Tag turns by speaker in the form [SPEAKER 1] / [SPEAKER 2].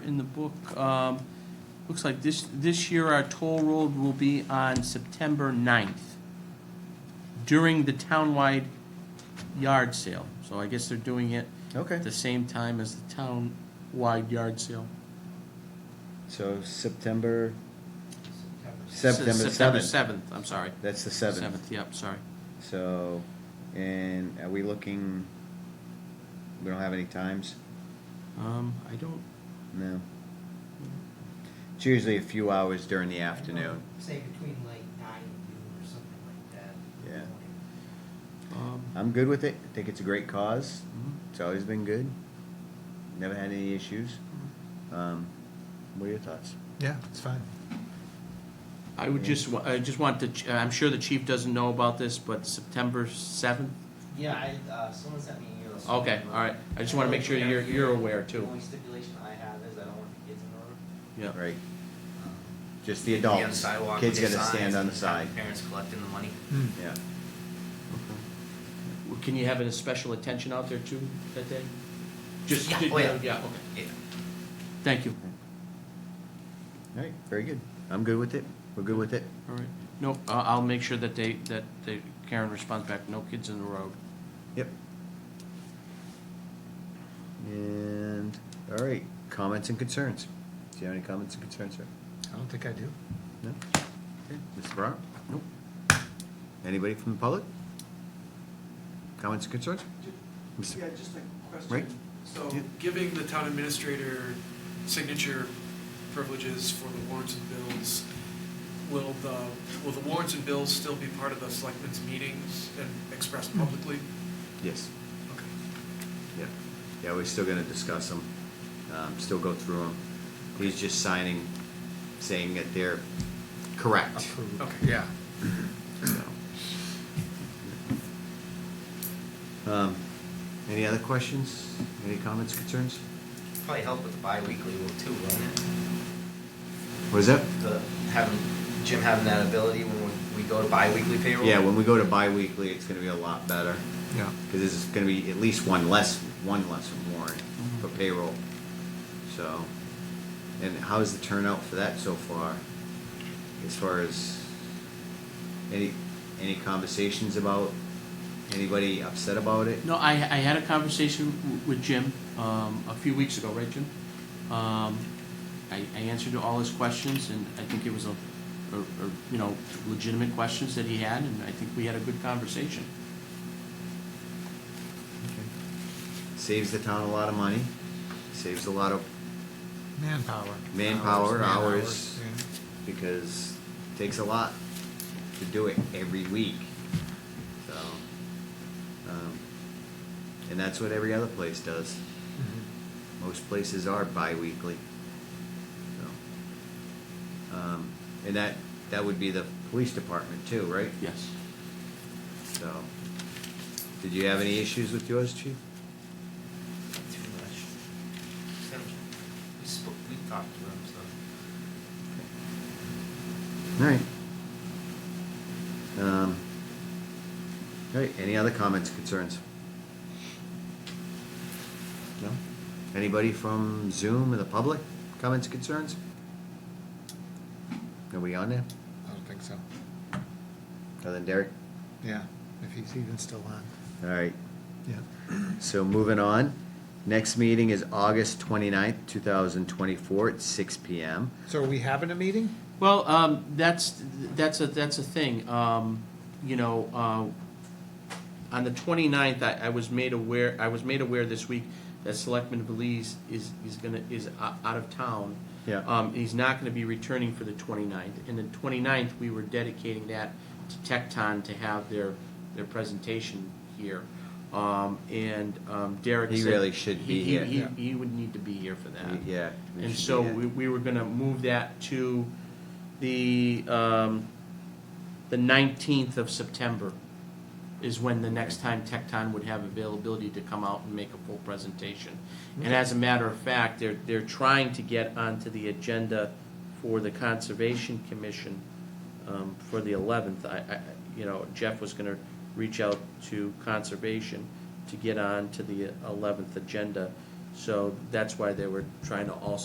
[SPEAKER 1] in the book, um, looks like this, this year our toll road will be on September 9th during the townwide yard sale. So I guess they're doing it
[SPEAKER 2] Okay.
[SPEAKER 1] at the same time as the townwide yard sale.
[SPEAKER 2] So September,
[SPEAKER 1] S-
[SPEAKER 2] September
[SPEAKER 1] September
[SPEAKER 2] seventh.
[SPEAKER 1] 7th, I'm sorry.
[SPEAKER 2] That's the seventh.
[SPEAKER 1] 7th, yep, sorry.
[SPEAKER 2] So, and are we looking, we don't have any times?
[SPEAKER 1] Um, I don't,
[SPEAKER 2] No. It's usually a few hours during the afternoon.
[SPEAKER 3] Say between like nine and noon or something like that.
[SPEAKER 2] Yeah.
[SPEAKER 1] um,
[SPEAKER 2] I'm good with it. I think it's a great cause.
[SPEAKER 1] mhm.
[SPEAKER 2] It's always been good. Never had any issues. Um, what are your thoughts?
[SPEAKER 4] Yeah, it's fine.
[SPEAKER 1] I would just, wa- I just want to, ch- I'm sure the chief doesn't know about this, but September 7th?
[SPEAKER 3] Yeah, I, uh, someone sent me an email. so-
[SPEAKER 1] Okay, all right. I just want to make sure you're, you're aware too.
[SPEAKER 3] The only stipulation I have is I don't want the kids in the road.
[SPEAKER 1] Yeah.
[SPEAKER 2] Right, just the
[SPEAKER 5] Kids gotta be on
[SPEAKER 2] adults.
[SPEAKER 5] sidewalk
[SPEAKER 2] Kids
[SPEAKER 5] with their
[SPEAKER 2] gotta stand
[SPEAKER 5] signs
[SPEAKER 2] on
[SPEAKER 5] and
[SPEAKER 2] the side.
[SPEAKER 5] Parents collecting the money.
[SPEAKER 4] Hmm.
[SPEAKER 2] Yeah.
[SPEAKER 1] Okay. Well, Can you have a special attention out there too that day? Just,
[SPEAKER 5] Yeah, oh, yeah.
[SPEAKER 1] yeah, okay.
[SPEAKER 5] Yeah.
[SPEAKER 1] Thank you.
[SPEAKER 2] All right, very good. I'm good with it. We're good with it.
[SPEAKER 1] All right. No, I- I'll make sure that they, that they- Karen responds back, no kids in the road.
[SPEAKER 2] Yep. And, all right, comments and concerns. Do you have any comments and concerns, sir?
[SPEAKER 4] I don't think I do.
[SPEAKER 2] No? Mr. Brown?
[SPEAKER 1] Nope.
[SPEAKER 2] Anybody from the public? Comments and concerns?
[SPEAKER 6] Yeah, just a
[SPEAKER 2] Right.
[SPEAKER 6] question. So
[SPEAKER 2] Yeah.
[SPEAKER 6] giving the town administrator signature privileges for the warrants and bills, will the, will the warrants and bills still be part of the selectmen's meetings and expressed publicly?
[SPEAKER 2] Yes.
[SPEAKER 6] Okay.
[SPEAKER 2] Yeah, yeah, we're still gonna discuss them, um, still go through them. He's just signing, saying that they're correct.
[SPEAKER 4] Approved.
[SPEAKER 6] Okay.
[SPEAKER 4] Yeah.
[SPEAKER 2] So. Um, Any other questions, any comments, concerns?
[SPEAKER 5] Probably help with the bi-weekly will too, won't it?
[SPEAKER 2] What is that?
[SPEAKER 5] The, having, Jim having that ability when we, we go to bi-weekly payroll.
[SPEAKER 2] Yeah, when we go to bi-weekly, it's gonna be a lot better,
[SPEAKER 4] Yeah.
[SPEAKER 2] because this is gonna be at least one less, one less warrant for payroll. So, and how's the turnout for that so far? As far as, any, any conversations about, anybody upset about it?
[SPEAKER 1] No, I, I had a conversation w- with Jim, um, a few weeks ago, right, Jim? Um, I, I answered all his questions, and I think it was a, a, a, you know, legitimate questions that he had, and I think we had a good conversation.
[SPEAKER 2] Saves the town a lot of money, saves a lot of,
[SPEAKER 4] Manpower.
[SPEAKER 2] Manpower,
[SPEAKER 4] man
[SPEAKER 2] hours.
[SPEAKER 4] yeah.
[SPEAKER 2] because it takes a lot to do it every week. So, um, and that's what every other place does.
[SPEAKER 4] Mhm.
[SPEAKER 2] Most places are bi-weekly. So, um, and that, that would be the police department too, right?
[SPEAKER 1] Yes.
[SPEAKER 2] So, did you have any issues with yours, chief?
[SPEAKER 5] Too much. We spoke, we talked to them, so.
[SPEAKER 2] Alright. Um, alright, any other comments, concerns? No? Anybody from Zoom or the public, comments, concerns? Are we on there?
[SPEAKER 4] I don't think so.
[SPEAKER 2] Other than Derek?
[SPEAKER 4] Yeah, if he's even still on.
[SPEAKER 2] Alright,
[SPEAKER 4] Yeah.
[SPEAKER 2] so moving on. Next meeting is August twenty-ninth, two thousand twenty-four, at six P M.
[SPEAKER 4] So are we having a meeting?
[SPEAKER 1] Well, um, that's, that's a, that's a thing, um, you know, uh, on the 29th, I, I was made aware, I was made aware this week that Selectman Belize is, is gonna, is o- out of town.
[SPEAKER 2] Yeah.
[SPEAKER 1] Um, he's not gonna be returning for the 29th, and the 29th, we were dedicating that to Tecton to have their, their presentation here. Um, and, um, Derek
[SPEAKER 2] He
[SPEAKER 1] said.
[SPEAKER 2] really should
[SPEAKER 1] he-
[SPEAKER 2] be
[SPEAKER 1] he-
[SPEAKER 2] here.
[SPEAKER 1] He,
[SPEAKER 4] Yeah.
[SPEAKER 1] he would need to be here for that.
[SPEAKER 2] Yeah. we
[SPEAKER 1] And
[SPEAKER 2] should
[SPEAKER 1] so
[SPEAKER 2] do that.
[SPEAKER 1] we, we were gonna move that to the, um, the nineteenth of September is when the next time Tecton would have availability to come out and make a full presentation. And as a matter of fact, they're, they're trying to get onto the agenda for the Conservation Commission, um, for the eleventh. I, I, you know, Jeff was gonna reach out to Conservation to get on to the eleventh agenda. So that's why they were trying to also